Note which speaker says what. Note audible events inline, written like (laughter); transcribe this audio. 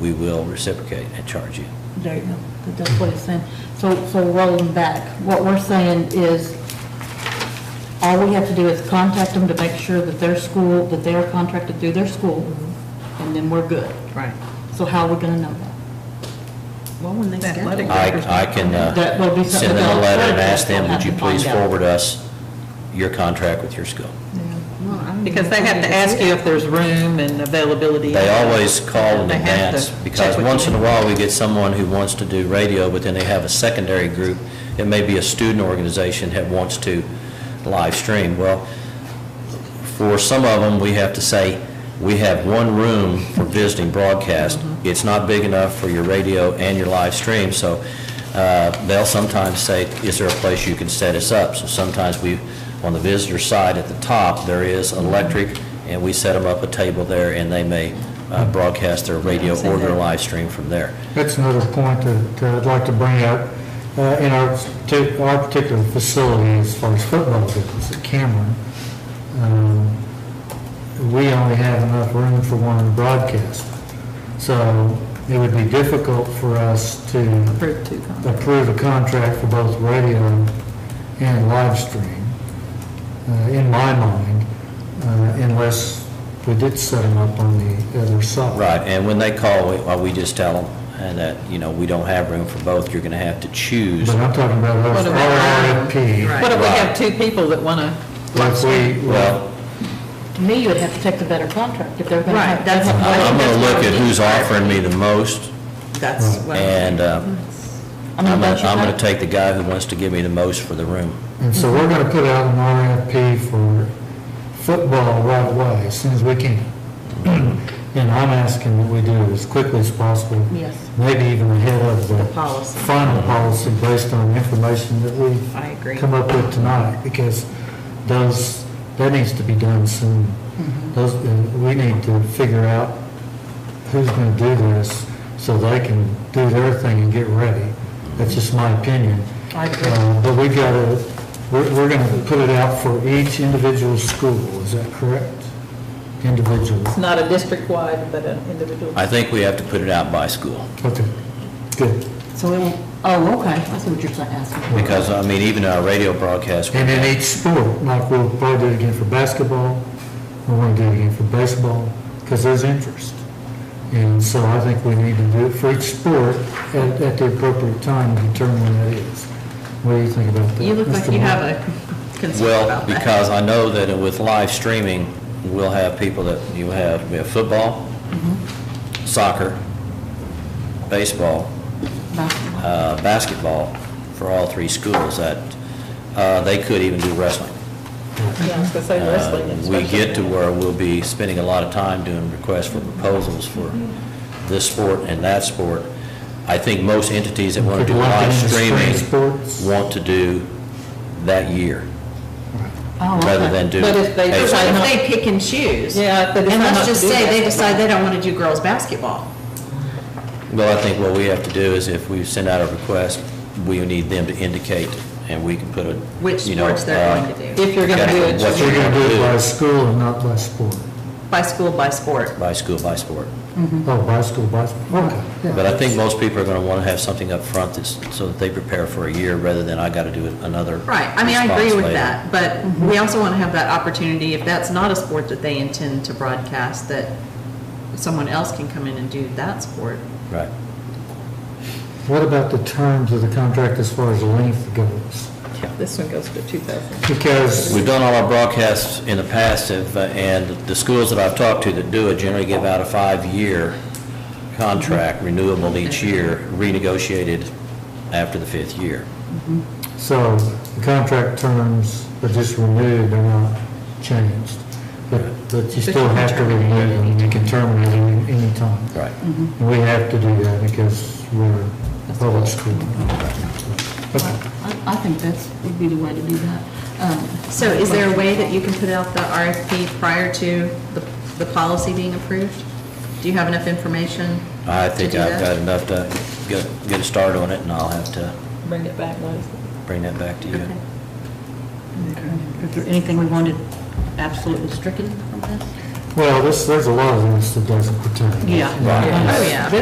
Speaker 1: we will reciprocate and charge you.
Speaker 2: There you go, That- that's what it's saying. So, so rolling back, what we're saying is, all we have to do is contact them to make sure that their school, that they are contracted through their school, and then we're good.
Speaker 3: Right.
Speaker 2: So how are we gonna know that?
Speaker 3: Well, when they
Speaker 4: Athletic
Speaker 3: schedule.
Speaker 1: I, I can uh,
Speaker 2: That will be something
Speaker 1: send them a
Speaker 2: that-
Speaker 1: letter and ask them,
Speaker 2: we'll
Speaker 1: would you
Speaker 2: have to
Speaker 1: please
Speaker 2: find out."
Speaker 1: forward us your contract with your school?
Speaker 3: Well, I don't even
Speaker 4: Because they
Speaker 3: think
Speaker 4: have
Speaker 3: they
Speaker 4: to
Speaker 3: can
Speaker 4: ask
Speaker 3: do
Speaker 4: you
Speaker 3: that.
Speaker 4: if there's room and availability.
Speaker 1: They always call in
Speaker 4: They have to
Speaker 1: advance,
Speaker 4: check
Speaker 1: because
Speaker 4: with
Speaker 1: once
Speaker 4: you.
Speaker 1: in a while, we get someone who wants to do radio, but then they have a secondary group, it may be a student organization that wants to live stream. Well, for some of them, we have to say, we have one room for visiting broadcast. It's not big enough for your radio and your live stream, so uh, they'll sometimes say, is there a place you can set us up? So sometimes we, on the visitor side at the top, there is an electric, and we set them up a table there, and they may uh, broadcast their radio or their live stream from there.
Speaker 5: That's another point that uh, I'd like to bring up. Uh, In our, partic- our particular facility, as far as football goes, at Cameron, um, we only have enough room for one broadcast. So it would be difficult for us to
Speaker 3: Approve two contracts.
Speaker 5: approve a contract for both radio and live stream, uh, in my mind, uh, unless we did set them up on the other side.
Speaker 1: Right, and when they call, we- well, we just tell them and that, you know, we don't have room for both, you're going to have to choose.
Speaker 5: But I'm talking about
Speaker 4: What
Speaker 5: our
Speaker 4: about-
Speaker 5: RFP.
Speaker 3: Right.
Speaker 4: What if we
Speaker 1: Right.
Speaker 4: have two people that want to?
Speaker 5: If we, well,
Speaker 1: Well,
Speaker 2: To me, you would have to take the better contract if they're gonna have.
Speaker 3: Right, that's
Speaker 2: that's-
Speaker 3: what-
Speaker 1: I'm going to look at who's offering me the most,
Speaker 3: That's what.
Speaker 1: and uh,
Speaker 2: I mean,
Speaker 1: I'm going
Speaker 2: don't
Speaker 1: to,
Speaker 2: you
Speaker 1: I'm going
Speaker 2: think?
Speaker 1: to take the guy who wants to give me the most for the room.
Speaker 5: and so we're going to put out an RFP for football right away, as soon as we can. (clears throat) And I'm asking that we do it as quickly as possible,
Speaker 2: Yes.
Speaker 5: maybe even ahead of
Speaker 3: The
Speaker 5: the
Speaker 3: policy.
Speaker 5: final policy based on information that we
Speaker 3: I agree.
Speaker 5: come up with tonight, because those, that needs to be done soon.
Speaker 2: Mm-hmm.
Speaker 5: Those, uh, we need to figure out who's going to do this, so they can do their thing and get ready. That's just my opinion.
Speaker 2: I agree.
Speaker 5: Uh, But we've got to, we're, we're going to put it out for each individual school, is that correct? Individual,
Speaker 4: It's not a district-wide, but an individual.
Speaker 1: I think we have to put it out by school,
Speaker 5: okay, good.
Speaker 2: So it, won't- oh, okay, I see what you're saying, asking.
Speaker 1: because, I mean, even our radio broadcast,
Speaker 5: And in each sport, like we'll probably do it again for basketball, we want to do it again for baseball, because there's interest. And so I think we need to do it for each sport at, at the appropriate time and determine when that is. What do you think about that?
Speaker 3: You look like
Speaker 5: Mr.
Speaker 3: you
Speaker 5: Moore?
Speaker 3: have a concern
Speaker 1: well,
Speaker 3: about that.
Speaker 1: because I know that with live streaming, we'll have people that, you have, we have football, soccer, baseball,
Speaker 2: Basketball.
Speaker 1: uh, basketball for all three schools, that, uh, they could even do wrestling.
Speaker 4: Yeah, I was going to say wrestling.
Speaker 1: Uh,
Speaker 4: and
Speaker 1: We
Speaker 4: special
Speaker 1: get to
Speaker 4: events.
Speaker 1: where we'll be spending a lot of time doing requests for proposals for
Speaker 4: Mm-hmm.
Speaker 1: this sport and that sport. I think most entities that want to do
Speaker 5: Could lock
Speaker 1: live
Speaker 5: in the spring
Speaker 1: streaming
Speaker 5: sports.
Speaker 1: want to do that year,
Speaker 2: Oh,
Speaker 1: rather
Speaker 2: okay.
Speaker 1: than do.
Speaker 4: But if they
Speaker 1: a-
Speaker 3: What
Speaker 4: decide
Speaker 3: if they pick and choose?
Speaker 4: Yeah, if they decide
Speaker 3: And
Speaker 4: not
Speaker 3: let's
Speaker 4: to
Speaker 3: just
Speaker 4: do
Speaker 3: say they
Speaker 4: basketball.
Speaker 3: decide they don't want to do girls' basketball.
Speaker 1: Well, I think what we have to do is if we send out a request, we need them to indicate, and we can put a,
Speaker 3: Which
Speaker 1: you know,
Speaker 3: sports they're
Speaker 1: uh,
Speaker 3: going to do.
Speaker 4: If you're going to do it.
Speaker 1: What
Speaker 5: So you're going to do it by school and not by sport?
Speaker 3: By school, by sport.
Speaker 1: By school, by sport.
Speaker 5: Oh, by school, by sport, okay. yeah.
Speaker 1: But I think most people are going to want to have something up front that's, so that they prepare for a year rather than I got to do it another.
Speaker 3: Right, I mean, I agree
Speaker 1: response
Speaker 3: with
Speaker 1: later. Mm-hmm.
Speaker 3: that, but we also want to have that opportunity, if that's not a sport that they intend to broadcast, that someone else can come in and do that sport.
Speaker 1: Right.
Speaker 5: What about the terms of the contract as far as length goes?
Speaker 4: This one goes to 2,000.
Speaker 5: Because
Speaker 1: We've done all our broadcasts in the past, if, uh, and the schools that I've talked to that do it generally give out a five-year contract, renewable each year, renegotiated after the fifth year.
Speaker 5: So the contract terms are just renewed, they're not changed. But, but you still have to renew them, you can terminate them at any time.
Speaker 1: Right.
Speaker 3: Mm-hmm.
Speaker 5: And we have to do that because we're a public school. Okay.
Speaker 2: I, I think that's, would be the way to do that. Um,
Speaker 3: So is there a way that you can put out the RFP prior to the, the policy being approved? Do you have enough information?
Speaker 1: I
Speaker 3: to
Speaker 1: think
Speaker 3: do
Speaker 1: I've
Speaker 3: that?
Speaker 1: got enough to get, get a start on it, and I'll have to
Speaker 4: Bring it back, Liza.
Speaker 1: bring that back to you.
Speaker 3: Okay.
Speaker 2: Is there anything we wanted absolutely stricken from this?
Speaker 5: Well, this, there's a lot of this that doesn't pertain.
Speaker 2: Yeah.
Speaker 3: Oh, yeah.